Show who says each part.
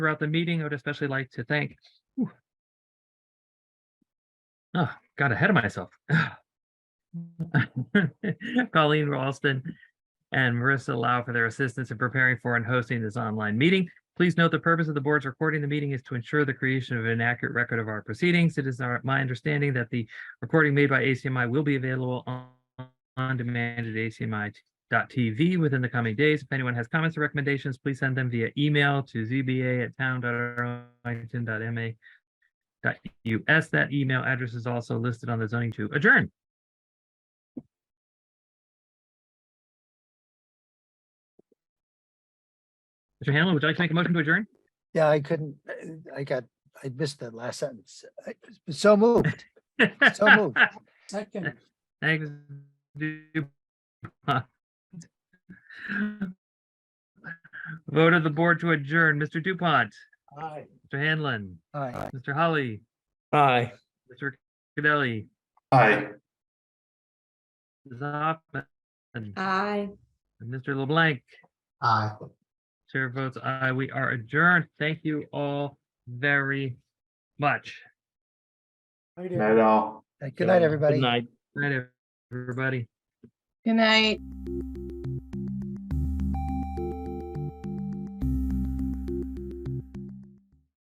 Speaker 1: throughout the meeting, I would especially like to thank. whew. Ah, got ahead of myself. Colleen Ralston and Marissa Lau for their assistance in preparing for and hosting this online meeting. Please note the purpose of the board's recording the meeting is to ensure the creation of an accurate record of our proceedings. It is our- my understanding that the recording made by ACMI will be available on on demand at acmi.tv within the coming days. If anyone has comments or recommendations, please send them via email to zba@town.arlington.ma.us. That email address is also listed on the zoning to adjourn. Mr. Hanlon, would you like to make a motion to adjourn?
Speaker 2: Yeah, I couldn't, uh, I got, I missed that last sentence. I- So moved. So moved.
Speaker 3: Second.
Speaker 1: Thanks. Dupont. Vote of the board to adjourn. Mr. Dupont,
Speaker 3: Aye.
Speaker 1: Mr. Hanlon,
Speaker 2: Aye.
Speaker 1: Mr. Holly,
Speaker 4: Aye.
Speaker 1: Mr. Cadelli,
Speaker 4: Aye.
Speaker 1: Ms. Hoffman, and
Speaker 5: Aye.
Speaker 1: Mr. LeBlanc.
Speaker 3: Aye.
Speaker 1: Chair votes aye. We are adjourned. Thank you all very much.
Speaker 2: É.
Speaker 4: Not at all.
Speaker 2: Good night, everybody.
Speaker 4: Good night.
Speaker 1: Good night, everybody.
Speaker 6: Good night.